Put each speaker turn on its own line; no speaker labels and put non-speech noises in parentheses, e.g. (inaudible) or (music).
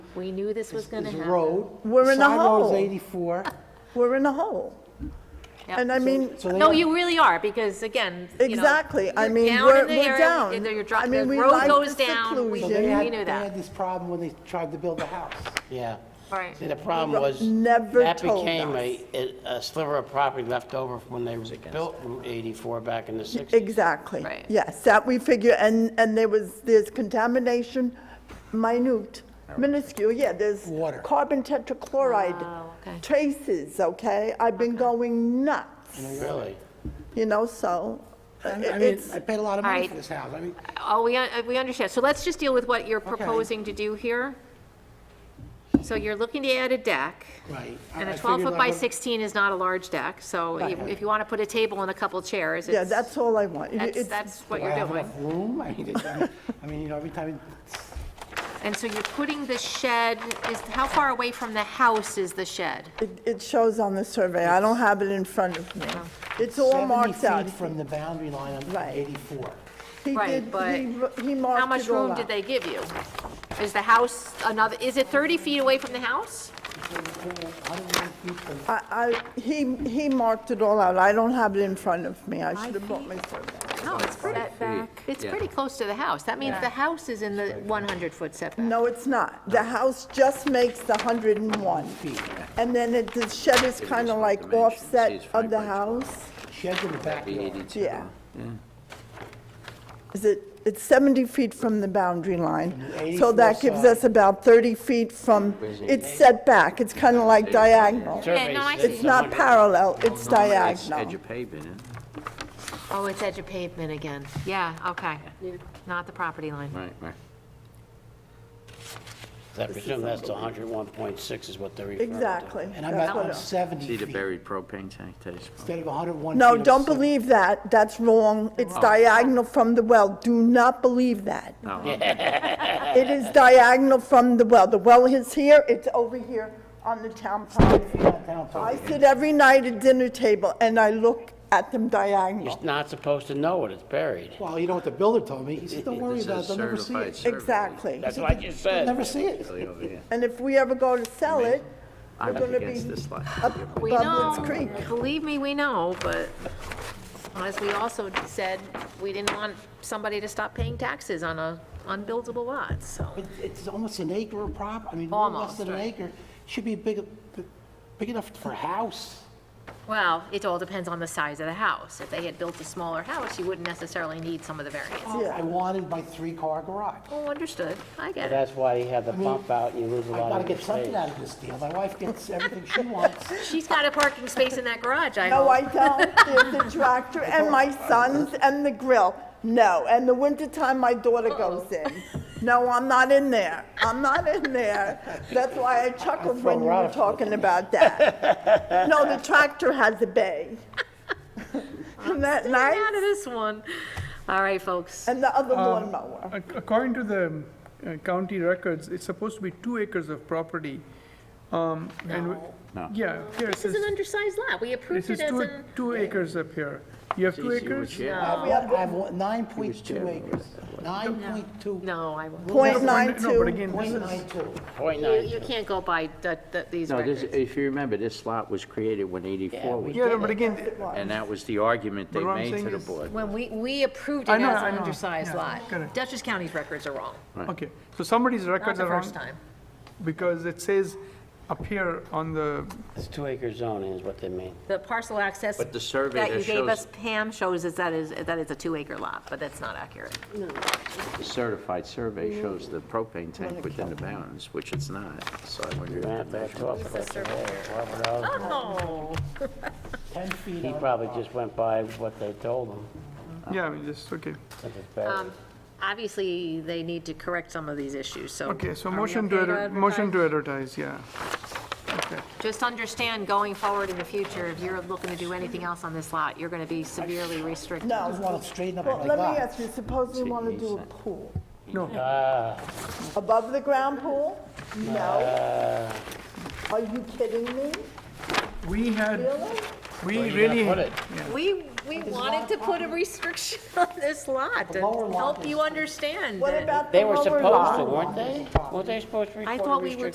We knew this was gonna
It's a
happen.
road.
We're in a
Sidewalk's
(laughs)
hole.
84.
We're in a hole.
Yep.
And I mean,
So they-
No, you really are, because again, you know,
Exactly. I
you're
mean,
down
we're-
in the
we're
area,
down.
and You're
I
dropping,
mean,
the
we
road
like
goes
the
down, we
So they
we
seclusion.
had,
knew
they had
that.
this problem when they tried to build a house.
Yeah.
Right.
See, the problem was,
Never
that
told
became
us.
a, a- a sliver of property left over from when they built Route 84 back in the 60s.
Exactly.
Right.
Yes, that we figure, and, and there was, there's contamination, minute, minuscule, yeah, there's
Water.
carbon tetrachloride
Wow, okay.
traces, okay? I've been going nuts,
Really?
you know, so uh,
I mean, I mean,
it's,
I paid a lot of money
Alright.
for this house. I mean,
Oh, we, un- we understand. So let's just deal with what you're proposing to do here. So you're looking to add a deck,
right. I-
and
I
a
figured
12-foot by
like a-
16 is not a large deck, so if if you want to put a table and a couple chairs,
yeah,
it's,
that's all I want. It-
that's,
it's-
that's what
Do I
you're
have
doing.
enough room? I mean, it's- I mean- I mean, you know, every time,
(laughs) And so you're putting the shed, is, how far away from the house is the shed?
It, it shows on the survey, I don't have it in front of me. It's all
70
marked out.
feet from the boundary line on
Right.
84.
He
Right,
did-
but
he wr- He marked it all out.
How much room did they give you? Is the house another, is it 30 feet away from the house?
I don't know if you can-
I, I, he, he marked it all out, I don't have it in front of me, I should have brought my survey.
No, it's pretty, it's pretty close to the house. That means the house is in the 100-foot setback.
No, it's not, the house just makes the hundred and one. And then it, the shed is kind of like offset of the house,
Sheds in the backyard.
yeah. Is it, it's seventy feet from the boundary line, so that
84
gives us
side.
about thirty feet from, it's set back, it's kind of like diagonal.
Yeah, no, I
Survey says
It's not
100.
parallel, it's
No, no, it's Edge
diagonal.
of pavement, isn't it?
Oh, it's edge of pavement again. Yeah, okay. Not the property line.
Right, right.
I presume that's the 101.6 is what they're referring to.
Exactly.
And I'm
that's
at
what
I'm
it-
70
See the
feet.
buried propane tank, that's
Instead of 101 feet.
No,
I'm
don't
70.
believe that. That's wrong. It's diagonal from the well. Do not believe that. (laughs) It is diagonal from the well. The well is here, it's over here on the town property.
Down top.
I sit every night at dinner table and I look at them diagonal.
You're not supposed to know it, it's buried.
Well, you know what the builder told me? He said, don't worry
This
about it,
is
they'll never see
certified
it.
survey.
Exactly.
That's what I just
They'll
said.
never see it.
Really over here.
And if we ever go to sell it,
I'm
gonna
against
be
this line.
up
We know,
Bubblin's Creek.
believe me, we know, but as we also said, we didn't want somebody to stop paying taxes on a unbuildable lot, so.
It- It's almost an acre of prop, I mean, a little less
Almost,
than an
right.
acre. Should be big, big enough for a house.
Well, it all depends on the size of the house. If they had built a smaller house, you wouldn't necessarily need some of the variance.
Yeah.
I wanted my three-car garage.
Oh, understood. I get it.
That's why you have the bump out and you lose a
I
lot
gotta
of your
get something
space.
out of this deal. My wife gets everything she
(laughs)
wants.
She's got a parking space in that garage, I
No, I
hope.
don't. There's the tractor and my sons and the grill. No, and the wintertime, my daughter goes
Oh.
in. No, I'm not in there. I'm not in there. That's why I chuckled when you
her out
were
if-
talking about that. No, the tractor has a
(laughs)
bay. Isn't that
Get out
nice?
of this one. All right, folks.
And the
Um,
other lawnmower.
Ac- According to the uh, county records, it's supposed to be two acres of property. Um, and we-
No.
Yeah, here it
This is an
says,
undersized lot. We
this
approved
is
it as
two,
an,
two acres up here. You have two
Geez, you were
acres?
chair.
I have I have one- 9.2
chairman
acres. 9.2.
no, I won't.
Point
No,
nine
but- No, but
two.
again, this is,
0.92.
Point
You,
nine.
you can't go by the, the, these
No, this,
records.
if you remember, this lot was created when 84 was,
yeah, no, but again,
and that was the argument they
But what I'm
made
saying
to the
is-
board.
When we, we approved it
I know,
as
I
an
know.
undersized
Yeah,
lot.
correct.
Dutchess County's records are wrong.
okay, so somebody's
Not
records
the
are
first
wrong,
time.
because it says up here on the,
It's two acre zoning is what they mean.
The parcel access
But the survey
that you
that
gave
shows-
us, Pam, shows us that is, that it's a two-acre lot, but that's not accurate.
The certified survey shows the propane tank within the bounds, which it's not, so I wonder if the
Matt, back
measurement-
off. Robert Allen,
Oh.
10 feet.
He
on-
probably just went by what they told him.
yeah, I mean, just, okay.
that it's buried.
Um, Obviously, they need to correct some of these issues, so.
Okay, so
are we
motion to,
okay
adver- motion
advertise?
to advertise, yeah. Okay.
Just understand, going forward in the future, if you're looking to do anything else on this lot, you're going to be severely restricted.
I
No.
just want to straighten up
Well,
my
let me
lot.
ask you, suppose we want to do a pool?
No,
Ah.
Above the ground pool? No.
Ah.
Are you kidding me?
we had,
Really?
we
Where you gonna
really,
put it?
We We wanted to put a restriction (laughs) on this lot to
lower lot
help
is-
you understand
What
that-
about the
They
lower
were supposed
lot?
to, weren't they? Weren't they supposed to
I
report
thought we were
restricted